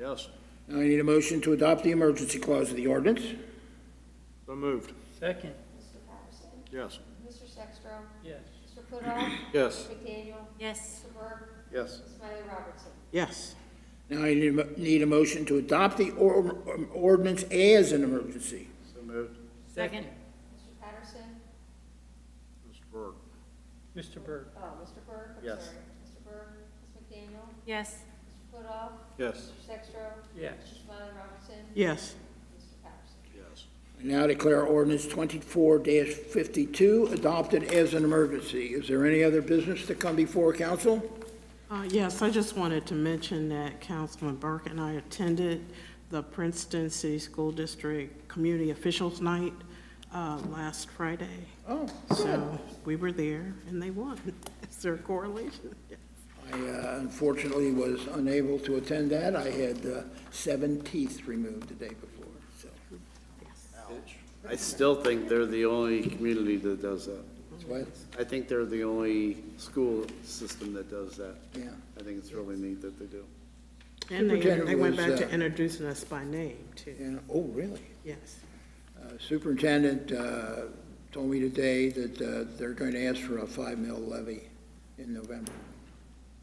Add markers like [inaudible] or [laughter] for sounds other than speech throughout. Yes. Now I need a motion to adopt the emergency clause of the ordinance. So moved. Second, Mr. Patterson. Yes. Mr. Sextro. yes. Mr. Pudoff. [coughs] Yes. McDaniel. yes, Mr. Burke. Yes. Ms. Miley Robertson. yes, Now I need a mo- need a motion to adopt the or- um, ordinance as an emergency. So moved. second, Mr. Patterson. Mr. Burke. Mr. Byrd, Oh, Mr. Burke. I'm Yes. sorry. Mr. Burke. Ms. McDaniel. yes, Mr. Pudoff. Yes. Mr. Sextro. yes. Ms. Miley Robertson. yes, Mr. Patterson. Yes. I now declare ordinance twenty-four fifty-two adopted as an emergency. Is there any other business to come before council? uh, yes, I just wanted to mention that Councilman Burke and I attended the Princeton City School District Community Officials Night, uh, last Friday. Oh, good. So, we were there and they won. [laughs] Is there a correlation? I uh, unfortunately was unable to attend that. I had uh, seven teeth removed the day before, so I still think they're the only community that does that. that's why, I think they're the only school system that does that. yeah. I think it's really neat that they do. And they, Superintendent they went was, back uh, to introducing us by name too, Yeah, oh, really? yes. Uh, Superintendent uh, told me today that uh, they're going to ask for a five mil levy in November.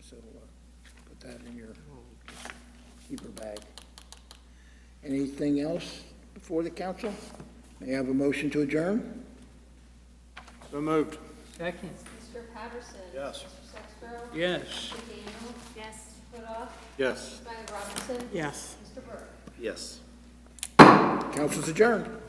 So uh, put that in your keeper bag. Anything else before the council? May I have a motion to adjourn? So moved. Second, Mr. Patterson. Yes. Mr. Sextro. yes. Mr. McDaniel. yes. Mr. Pudoff. Yes. Ms. Miley Robertson. Yes. Mr. Burke. Yes. Council's adjourned.